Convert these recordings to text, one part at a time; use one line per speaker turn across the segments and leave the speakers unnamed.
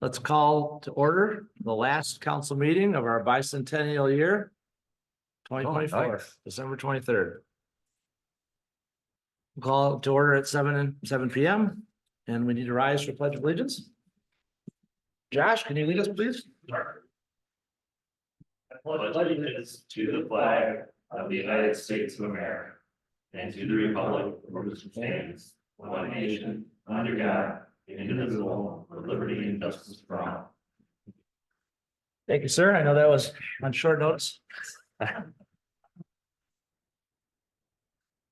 Let's call to order the last council meeting of our bicentennial year. Twenty twenty-four,
nice.
December twenty-third. Call to order at seven and seven P M, and we need to rise for pledge of allegiance. Josh, can you lead us, please?
I pledge allegiance to the flag of the United States of America and to the republic for which it stands, one nation, under God, indivisible, with liberty and justice for all.
Thank you, sir. I know that was on short notice.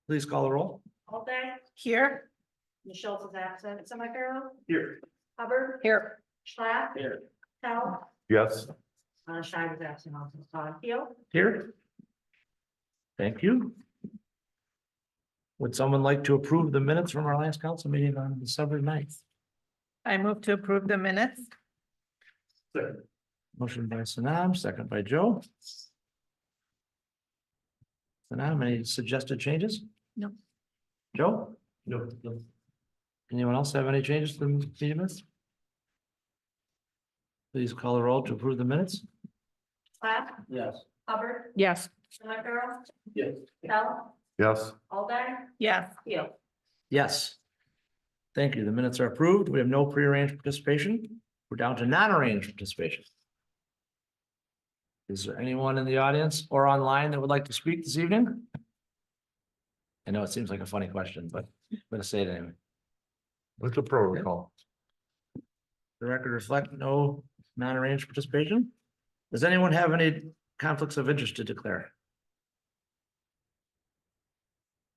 Please call the roll.
Alday,
Here.
Michelle's is absent, Semi-Pharaoh,
Here.
Hubbard,
Here.
Schlapp.
Here.
Tell,
Yes,
uh, Shai is absent, also Uh, Todd Hill.
Here. Thank you. Would someone like to approve the minutes from our last council meeting on December 9th?
I move to approve the minutes.
Motion by Sanam, second by Joe. Sanam, any suggested changes?
No.
Joe? No. Anyone else have any changes to the meeting minutes? Please call the roll to approve the minutes.
Schlapp,
Yes.
Hubbard,
Yes.
Semi-Pharaoh,
Yes.
Tell,
yes,
Alday,
Yes.
Hill.
Yes. Thank you. The minutes are approved. We have no prearranged participation. We're down to non-arranged participation. Is there anyone in the audience or online that would like to speak this evening? I know it seems like a funny question, but I'm gonna say it anyway.
it's a protocol.
The record reflect no non-arranged participation. Does anyone have any conflicts of interest to declare?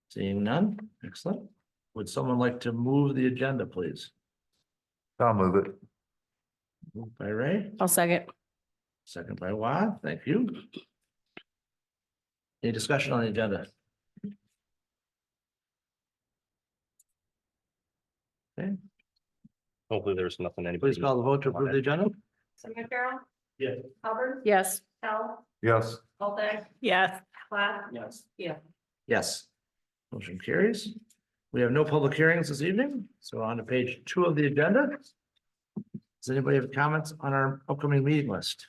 Seeing none. Excellent. Would someone like to move the agenda, please?
I'll move it.
Moved by Ray,
I'll second.
second by Wad, thank you. Any discussion on the agenda?
Hopefully there's nothing anybody.
Please call the vote to approve the agenda.
Semi-Pharaoh,
Yes.
Hubbard,
Yes.
Tell,
Yes,
Alday,
Yes.
Schlapp,
Yes.
Hill.
Yes. Motion carries. We have no public hearings this evening, so on to page two of the agenda. Does anybody have comments on our upcoming meeting list?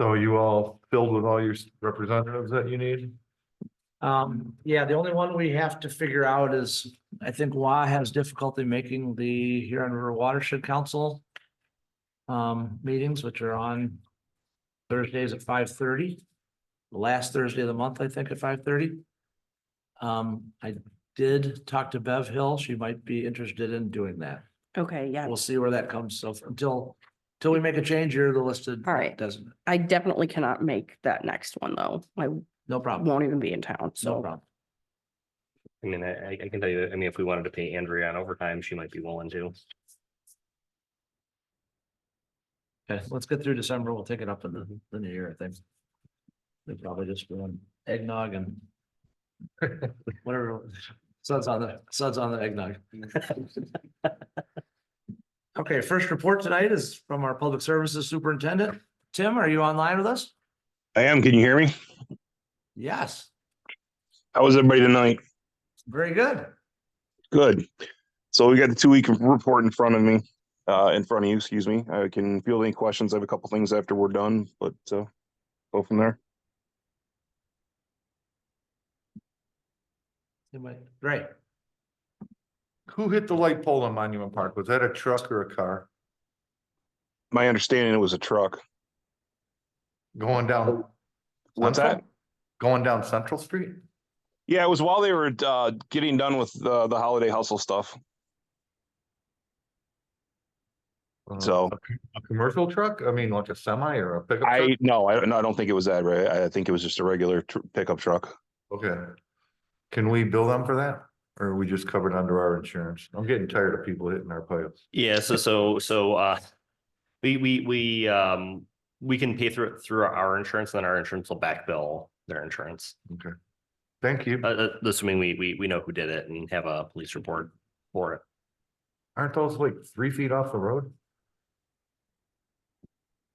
so are you all filled with all your representatives that you need?
Um, yeah, the only one we have to figure out is, I think WA has difficulty making the Huron River Watershed Council. Um, meetings which are on Thursdays at five thirty, the last Thursday of the month, I think, at five thirty. Um, I did talk to Bev Hill. She might be interested in doing that.
Okay, yeah,
We'll see where that comes. So until, until we make a change, you're the listed.
All right.
Doesn't,
I definitely cannot make that next one though. I
no problem,
won't even be in town,
no
so
problem.
I mean, I, I can tell you, I mean, if we wanted to pay Andrea on overtime, she might be willing to.
Okay, let's get through December. We'll take it up in the, the new year, I think. They're probably just doing eggnog and whatever, suds on the, suds on the eggnog. Okay, first report tonight is from our Public Services Superintendent. Tim, are you online with us?
I am. Can you hear me?
Yes,
How was everybody tonight?
very good.
Good. So we got the two week report in front of me, uh, in front of you, excuse me. I can field any questions. I have a couple things after we're done, but, uh, go from there.
Anyway, Great.
Who hit the light pole on Monument Park? Was that a truck or a car
My understanding, it was a truck.
going down?
What's
Central?
that?
Going down Central Street?
Yeah, it was while they were, uh, getting done with, uh, the holiday hustle stuff.
Uh,
So-
A commercial truck? I mean, like a semi or a pickup? truck?
I, no, I don't, no, I don't think it was that, right? I I think it was just a regular tr- pickup truck.
Okay. Can we bill them for that? Or are we just covered under our insurance? I'm getting tired of people hitting our pipes.
Yeah, so, so, so, uh, we, we, we, um, we can pay through, through our insurance, and then our insurance will back bill their insurance.
Thank you.
Uh, Uh, assuming we, we, we know who did it and have a police report for it.
Aren't those like three feet off the road?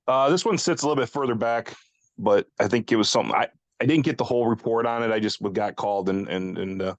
Uh, this one sits a little bit further back, but I think it was something I, I didn't get the whole report on it. I just got called and, and, and, uh,